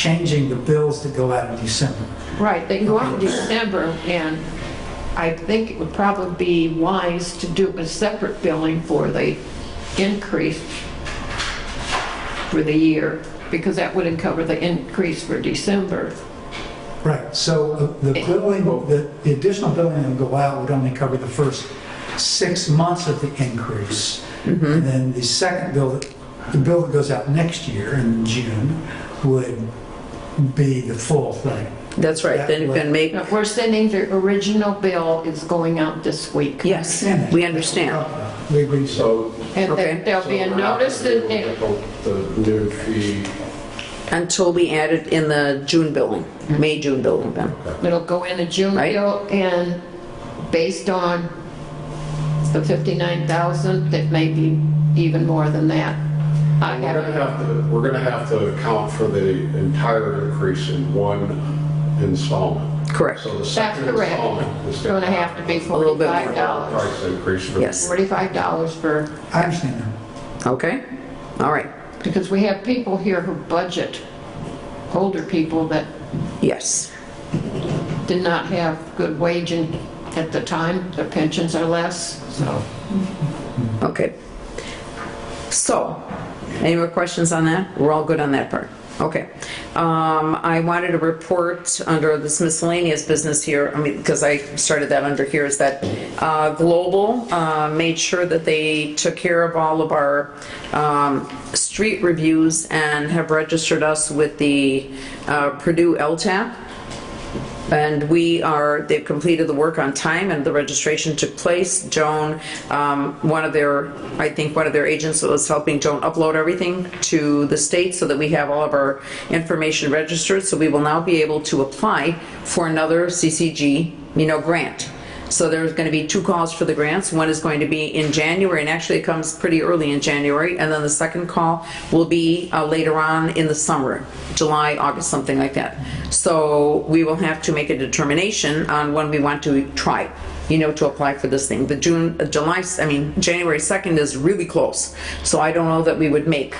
changing the bills that go out in December. Right, they go out in December, and I think it would probably be wise to do a separate billing for the increase for the year, because that wouldn't cover the increase for December. Right, so uh, the the billing, the the additional billing that would go out would only cover the first six months of the increase. Mm-hmm. And then the second bill, that- the bill that goes out next year in June would be the full thing. That's right, then it can make, Now, We're sending the original bill is going out this week. yes, Understand that? we understand. We agree. So. And Okay. there- there'll so be we're a not notice gonna that be they- able to get The new fee, Until we add it in the June billing, May, June billing then. it'll go in a June Right. bill, and based on the 59,000, it may be even more than that. I we're gonna haven't have to, we're gonna have to account for the entire increase in one installment. Correct. So the That's second correct. installment is It's going to have to be little bit more. $45. Price increase for. Yes. $45 for, I understand that. Okay, all right, because we have people here who budget, older people that yes, did not have good wage and at the time, their pensions are less, so. okay. So, any more questions on that? We're all good on that part, okay. Um, I wanted to report under this miscellaneous business here, I mean, because I started that under here, is that uh, Global uh, made sure that they took care of all of our um, street reviews and have registered us with the uh, Purdue LTAP. And we are, they've completed the work on time and the registration took place. Joan, um, one of their, I think one of their agents was helping Joan upload everything to the state so that we have all of our information registered. So we will now be able to apply for another CCG, you know, grant. So there's going to be two calls for the grants. One is going to be in January, and actually it comes pretty early in January. And then the second call will be uh, later on in the summer, July, August, something like that. So we will have to make a determination on when we want to try, you know, to apply for this thing. The June, uh, July, I mean, January 2nd is really close. So I don't know that we would make,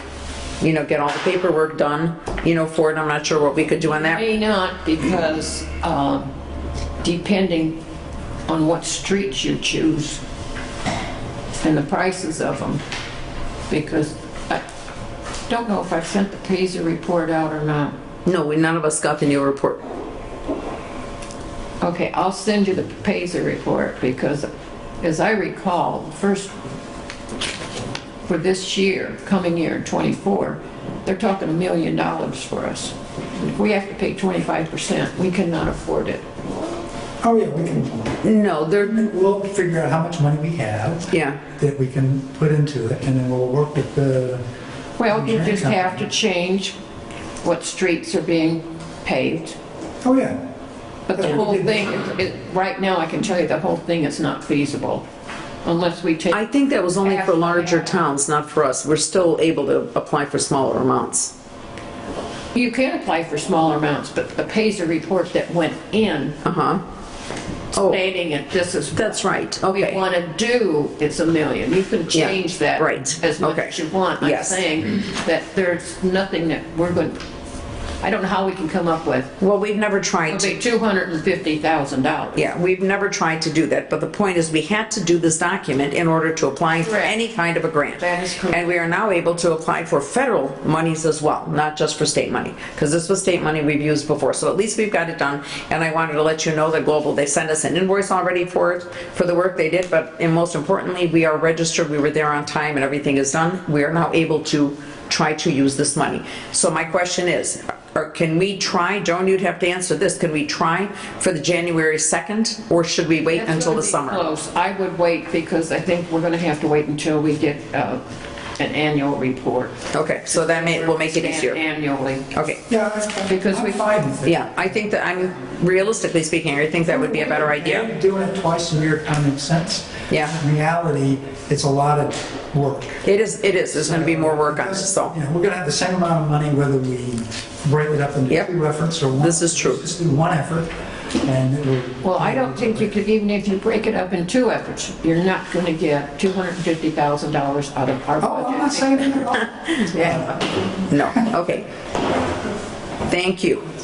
you know, get all the paperwork done, you know, for it. I'm not sure what we could do on that. May not because um, depending on what streets you choose and the prices of them, because I don't know if I've sent the Paisley report out or not. No, we, none of us got the new report. Okay, I'll send you the Paisley report because, as I recall, the first, for this year, coming year, '24, they're talking a million dollars for us. If we have to pay 25%, we cannot afford it. Oh, yeah, we can, No, they're, we'll figure out how much money we have yeah. that we can put into it, and then we'll work with the, Well, you Insurance just have to company. change what streets are being paved. oh, yeah. But the whole thing, it- right now, I can tell you, the whole thing is not feasible unless we I take, think that was only for larger towns, not for us. We're still able to apply for smaller amounts. you can apply for smaller amounts, but the Paisley report that went in Uh-huh. Oh, stating it, this is what that's right, we okay. want to do, it's a million. You can Yeah, change that right, as much okay, as you want. I'm yes. saying that there's nothing that we're going, I don't know how we can come up with, Well, we've never tried it'll to, be $250,000. yeah, we've never tried to do that, but the point is, we had to do this document in order to apply for Correct. any kind of a grant. That is correct. And we are now able to apply for federal monies as well, not just for state money, because this was state money we've used before, so at least we've got it done. And I wanted to let you know that Global, they sent us an invoice already for it, for the work they did, but, and most importantly, we are registered, we were there on time, and everything is done. We are now able to try to use this money. So my question is, or can we try, Joan, you'd have to answer this, can we try for the January 2nd, or should we wait That's until gonna the be summer? Close. I would wait because I think we're going to have to wait until we get uh, an annual report. Okay, so that may, will make it Stand easier. Annually. Okay. Yeah, I- I- Because I'm we- fine with it. Yeah, I think that I'm, realistically speaking, I think that would be a better idea. Maybe Doing it twice a year kind of makes sense. Yeah. In reality, it's a lot of work. It is, it is, there's going to be more work on it, so. You know, we're gonna have the same amount of money whether we break it up into Yep. two efforts or one. This is true. Just do one effort, and it will. Well, I don't think you could, even if you break it up in two efforts, you're not going to get $250,000 out of our Oh, I'm not budget. saying that at all. Yeah. No, okay. Thank you.